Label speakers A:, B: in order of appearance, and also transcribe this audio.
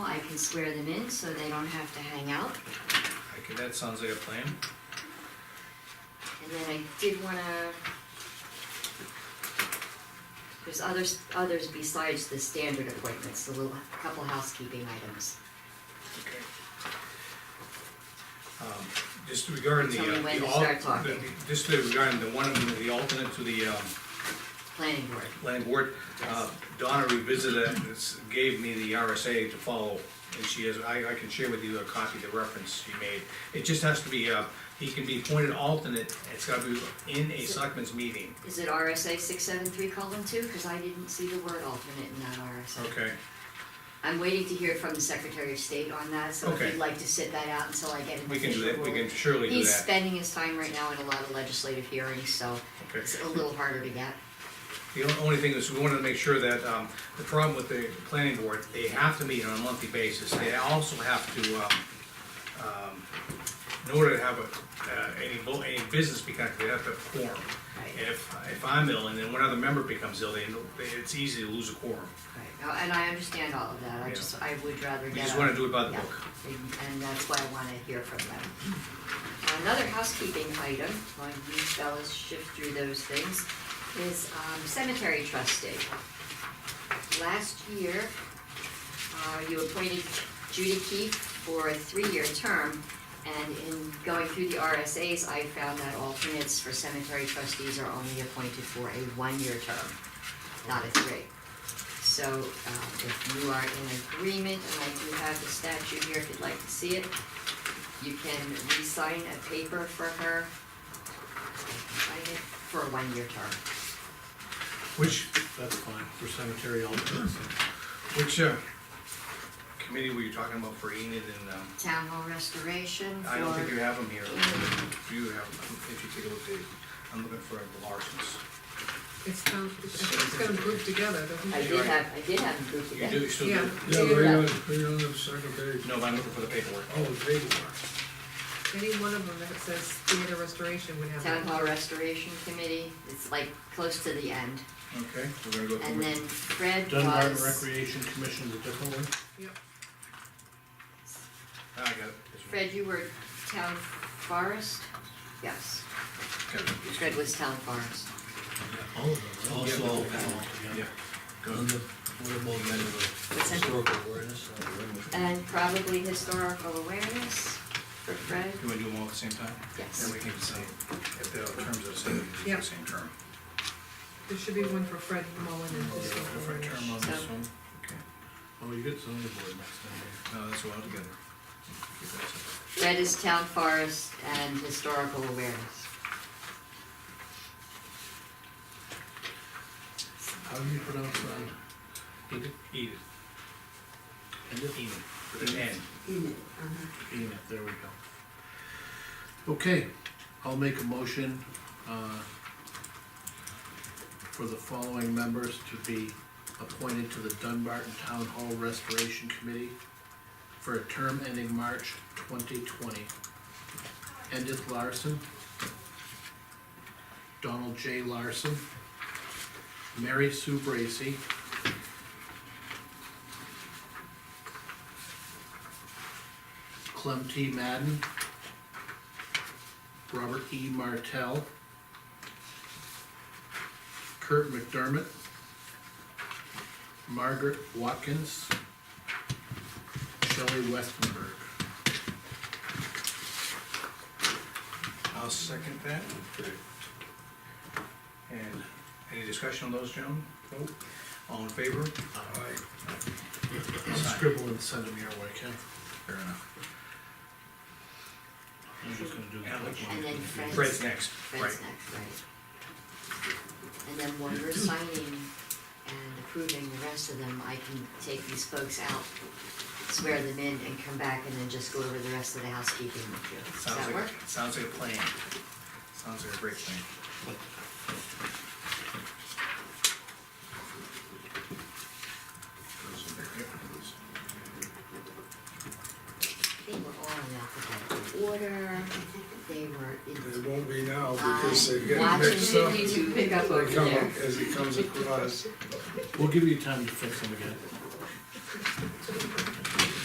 A: can swear them in so they don't have to hang out.
B: Okay, that sounds like a plan.
A: And then I did wanna, there's others, others besides the standard appointments, a little, couple housekeeping items.
B: Okay. Um, Just regarding the.
A: Tell me
B: uh, the
A: when to
B: al-
A: start
B: the-
A: talking.
B: the- Just regarding the one, the alternate to the um,
A: Planning board.
B: planning board, uh, Donna revisited it, and it's- gave me the RSA to follow, and she has, I, I can share with you a copy of the reference she made. It just has to be, uh, he can be appointed alternate, it's gotta be in a selectmen's meeting.
A: Is it RSA six seven three colon two? Cause I didn't see the word alternate in that RSA.
B: Okay,
A: I'm waiting to hear from the Secretary of State on that, so if
B: Okay.
A: you'd like to sit that out until I get an official
B: we can do that, we
A: ruling.
B: can surely do
A: He's
B: that.
A: spending his time right now in a lot of legislative hearings, so
B: Okay.
A: it's a little harder to get.
B: The on- only thing is, we wanted to make sure that, um, the problem with the planning board, they have to meet on a monthly basis. They also have to, um, um, in order to have a, uh, any, bu- any business be conducted, they have to have a quorum.
A: Right.
B: And if, if I'm ill and then one other member becomes ill, they, they- it's easy to lose a quorum.
A: Right, Oh, and I understand all of that, I
B: Yeah.
A: just, I would rather
B: We
A: get.
B: just
A: a-
B: wanna do it by the
A: Yeah.
B: book.
A: And- And that's why I wanna hear from them. Another housekeeping item, while you fellas shift through those things, is um, cemetery trustee. Last year, uh, you appointed Judy Keefe for a three-year term, and in going through the RSAs, I found that alternates for cemetery trustees are only appointed for a one-year term, not a three. So uh, if you are in agreement, and I do have the statute here if you'd like to see it, you can re-sign a paper for her. I can Sign it for a one-year term.
B: Which,
C: That's fine, for cemetery alternates.
B: which, uh, committee were you talking about for Enid and, um,
A: Town hall restoration for.
B: I don't think you have them here. Do you have, 'em? if you take a look, Dave, I'm looking for the Larsons.
D: It's kind of, I think it's kind of grouped together, doesn't
A: I
D: it?
A: did have, I did have them grouped
B: You
A: together.
B: do, you still
D: Yeah.
B: do?
C: Yeah, right on, right on the second page.
B: No, but I'm looking for the paperwork.
C: Oh, the paperwork.
D: Any one of them that says theater restoration would have.
A: Town hall restoration committee, it's like close to the end.
B: Okay, we're gonna go through.
A: And then Fred
C: Dunbar
A: was,
C: Recreation Commission is a different one?
D: Yep,
B: Ah, I got it.
A: Fred, you were town forest? Yes, Fred was town forest.
C: All of them,
E: Also all
C: Oh,
B: Yeah.
E: On the, what about the
A: What's that?
E: historical awareness? uh, awareness?
A: And probably historical awareness for Fred.
B: Do we do them all at the same time?
A: Yes.
B: Then we can say, if the terms are the same, we can do
D: Yeah.
B: the same term.
D: there should be one for Fred Mullen and
B: Yeah,
D: this
B: if I
D: one
B: term on
D: for.
B: this
A: So-
B: one, okay.
C: Oh, you get zoning board next time.
B: No, that's all together. Keep that separate.
A: Fred is town forest and historical awareness.
C: How do you pronounce that?
B: Edith. Enid. With an N.
C: Enid, there we go. Okay, I'll make a motion, uh, for the following members to be appointed to the Dunbarton Town Hall Restoration Committee for a term ending March twenty twenty. Edith Larson, Donald J. Larson, Mary Sue Bracy, Clem T. Madden, Robert E. Martell, Kurt McDermott, Margaret Watkins, Shelley Westenberg.
B: I'll second that. And any discussion on those, gentlemen? Nope. All in favor?
C: Scribble and send them your way, Ken.
B: Fair enough.
C: I'm just gonna do
A: And then
C: that.
A: Fred's,
B: Fred's next, right.
A: Fred's next, right. And then when we're signing and approving the rest of them, I can take these folks out, swear them in and come back and then just go over the rest of the housekeeping with you. Does
B: Sounds
A: that
B: like,
A: work?
B: sounds like a plan. Sounds like a great plan.
A: They were all in alphabetical order, they were
F: It
A: in.
F: won't be now because they're getting
A: Watching
F: mixed up.
A: you two pick up over
F: They come
A: there.
F: up as it comes across.
C: We'll give you time to fix them again.